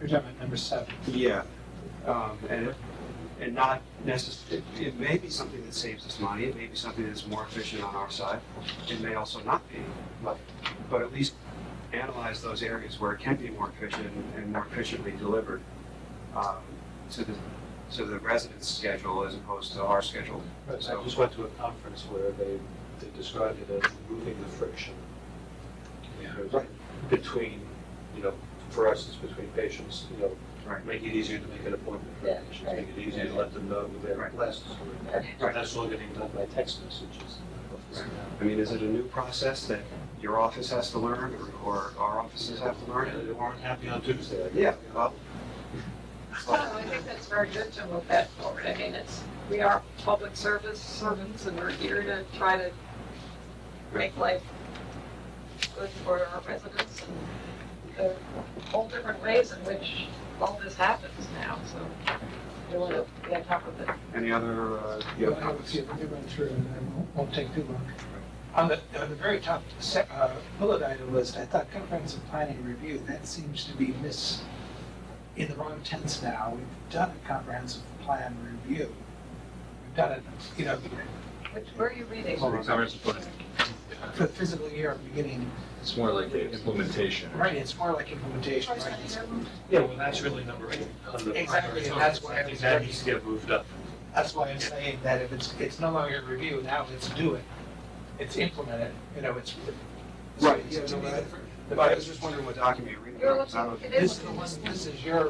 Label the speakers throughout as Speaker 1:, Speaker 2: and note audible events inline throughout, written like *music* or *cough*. Speaker 1: You're talking about number seven.
Speaker 2: Yeah, um, and, and not necessarily, it may be something that saves us money, it may be something that's more efficient on our side, it may also not be, but, but at least analyze those areas where it can be more efficient and more efficiently delivered, um, to the, to the resident's schedule as opposed to our schedule.
Speaker 3: I just went to a conference where they, they described it as removing the friction.
Speaker 2: Right.
Speaker 3: Between, you know, for us, it's between patients, you know,
Speaker 2: Right.
Speaker 3: make it easier to make an appointment for
Speaker 4: Yeah,
Speaker 3: patients,
Speaker 4: right.
Speaker 3: make it easier to let them know who their
Speaker 2: Right.
Speaker 3: classes are. in. So That's all getting done by text messages.
Speaker 2: I mean, is it a new process that your office has to learn, or, or our offices have to learn?
Speaker 3: And They weren't happy on Tuesday. I guess.
Speaker 2: Yeah, well.
Speaker 5: No, I think that's very good to move that forward. I mean, it's, we are public service servants and we're here to try to make life good for our residents and there are whole different ways in which all this happens now, so we want to be on top of it.
Speaker 2: Any other, uh,
Speaker 1: Yeah, I have a few, I run through and I won't- won't take too long. On the, on the very top se- uh, bullet item list, I thought comprehensive planning review, that seems to be miss, in the wrong tense now. We've done a comprehensive plan review. We've done it, you know,
Speaker 5: Which, where are you reading?
Speaker 2: Hold on.
Speaker 6: Comprehensive plan.
Speaker 1: for the physical year beginning,
Speaker 6: It's more like the implementation.
Speaker 1: right, it's more like implementation, right?
Speaker 3: Yeah, well, that's really number eight. on the
Speaker 1: Exactly,
Speaker 3: primary
Speaker 1: and that's
Speaker 3: target.
Speaker 1: why I
Speaker 3: I
Speaker 1: was
Speaker 3: think that
Speaker 1: very-
Speaker 3: needs to get moved up.
Speaker 1: That's why I'm saying that if it's, it's no longer review, now it's do it. It's implement it, you know, it's.
Speaker 2: Right,
Speaker 1: it's-
Speaker 2: yeah,
Speaker 1: it's-
Speaker 2: no, I- but I was just wondering what document you're reading.
Speaker 5: You're
Speaker 2: because I
Speaker 5: looking,
Speaker 2: don't-
Speaker 5: it
Speaker 1: This,
Speaker 5: is
Speaker 1: is
Speaker 5: the one.
Speaker 1: the- this is your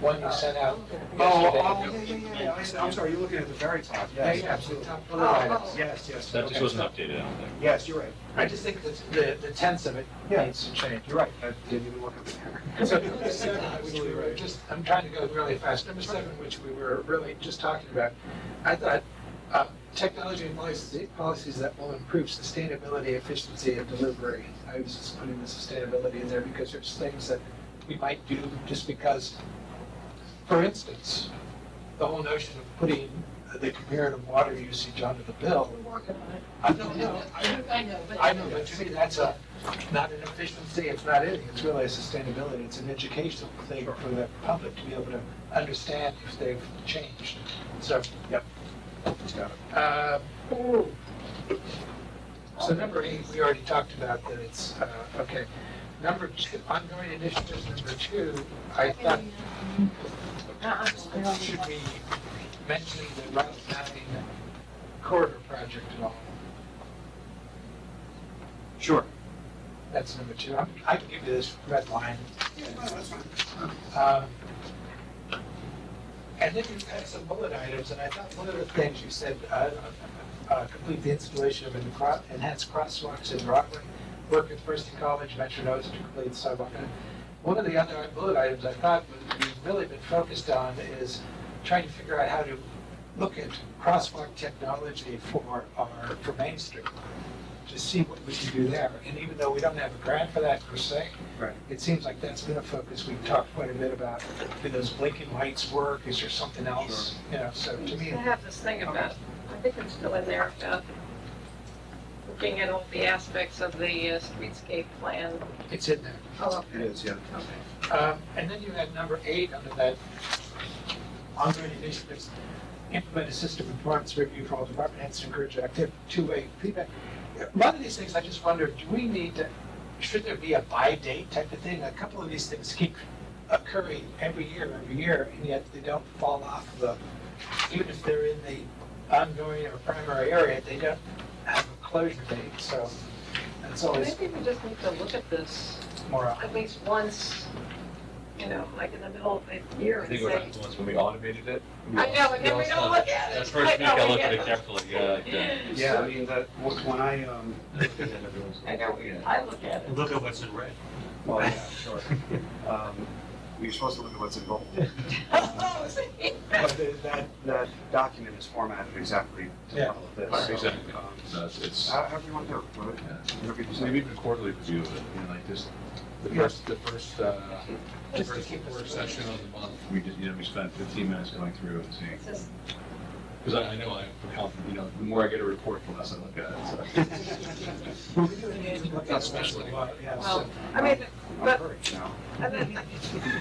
Speaker 1: one you sent out.
Speaker 2: Oh,
Speaker 1: yesterday.
Speaker 2: oh, yeah, yeah, yeah, yeah, I see. I'm sorry, you're looking at the very top,
Speaker 1: Yeah,
Speaker 2: yes,
Speaker 1: yeah, absolutely.
Speaker 2: absolutely.
Speaker 1: Top bullet item.
Speaker 5: Oh,
Speaker 2: Yes, yes.
Speaker 6: That just
Speaker 2: okay.
Speaker 6: wasn't updated, I don't think.
Speaker 2: Yes, you're right,
Speaker 1: I just think that the, the tense of it
Speaker 2: Yeah.
Speaker 1: needs to change.
Speaker 2: you're right, Uh, I didn't even look at the
Speaker 1: So number seven, which we were just, I'm trying to go really fast. Number seven, which we were really just talking about, I thought, uh, technology and policies, policies that will improve sustainability, efficiency, and delivery. I was just putting the sustainability in there because there's things that we might do just because, for instance, the whole notion of putting the comparative water usage onto the bill.
Speaker 5: We're working on it.
Speaker 1: I don't know, I,
Speaker 4: I know, but.
Speaker 1: I know, but to me, that's a, not an efficiency, it's not anything, it's really a sustainability, it's an educational thing for the public to be able to understand if they've changed, so, yep. Uh, So number eight, we already talked about that it's, uh, okay. Number two, ongoing initiatives, number two, I thought,
Speaker 4: Uh-uh.
Speaker 1: should we mention the Route 9 corridor project at all?
Speaker 2: Sure.
Speaker 1: That's number two. I'm- I can give you this red line. Um, And then you had some bullet items, and I thought one of the things you said, uh, uh, complete the installation of encro- enhanced crosswalks in Rockland, work with First and College, Metro North to complete sidewalk. And One of the other bullet items I thought was- we've really been focused on is trying to figure out how to look at crosswalk technology for our, for Main Street to see what we can do there. And even though we don't have a grant for that per se,
Speaker 2: Right.
Speaker 1: it seems like that's been a focus. We've talked quite a bit about, do those blinking lights work? Is there something else? You know, so to
Speaker 5: I
Speaker 1: me,
Speaker 5: have this thing about, I think it's still in there, about looking at all the aspects of the uh, streetscape plan.
Speaker 1: it's in there.
Speaker 5: Oh,
Speaker 2: It is, yeah.
Speaker 1: Um, And then you had number eight under that ongoing initiatives, implement a system of performance review for all department heads to encourage active two-way feedback. A lot of these things, I just wonder, do we need to, should there be a by date type of thing? A couple of these things keep occurring every year, every year, and yet they don't fall off the, even if they're in the ongoing or primary area, they don't have a closure date, so that's always
Speaker 5: Maybe we just need to look at this
Speaker 1: more.
Speaker 5: at least once, you know, like in the middle of the year
Speaker 6: I
Speaker 5: and
Speaker 6: think we're
Speaker 5: say.
Speaker 6: not the ones when we automated it.
Speaker 5: I know, and then we don't look at it.
Speaker 6: That first
Speaker 5: I
Speaker 6: week,
Speaker 5: know,
Speaker 6: I
Speaker 5: we
Speaker 6: looked at
Speaker 5: get
Speaker 6: it
Speaker 5: them.
Speaker 6: carefully, yeah, like that.
Speaker 2: Yeah, I mean, that, wh- when I, um,
Speaker 5: *laughs* I know, we- I look at it.
Speaker 3: Look at what's in red.
Speaker 2: well, yeah, sure. Um, You're supposed to look at what's
Speaker 5: *laughs*
Speaker 2: involved. But the- that, that document is formatted exactly to
Speaker 1: Yeah.
Speaker 2: follow this.
Speaker 6: Right,
Speaker 2: so,
Speaker 6: exactly.
Speaker 2: um,
Speaker 6: No, it's- it's-
Speaker 2: how- However you want to do it, whatever-
Speaker 6: yeah.
Speaker 2: whatever you
Speaker 6: So
Speaker 2: decide.
Speaker 6: maybe even quarterly review of it, you know, like this, the first, the first, uh, the
Speaker 1: Just to
Speaker 6: first
Speaker 1: keep us-
Speaker 6: work session of the month, we just, you know, we spent fifteen minutes going through and seeing.
Speaker 5: It's just-
Speaker 6: Because I, I know I, from health, you know, the more I get a report, the less I look at it, *laughs* so.
Speaker 1: Well, we do it in-
Speaker 6: Not specially.
Speaker 1: Yeah, so-
Speaker 5: Well, I mean,
Speaker 2: I'm
Speaker 5: but,
Speaker 2: hurried now.
Speaker 5: and then,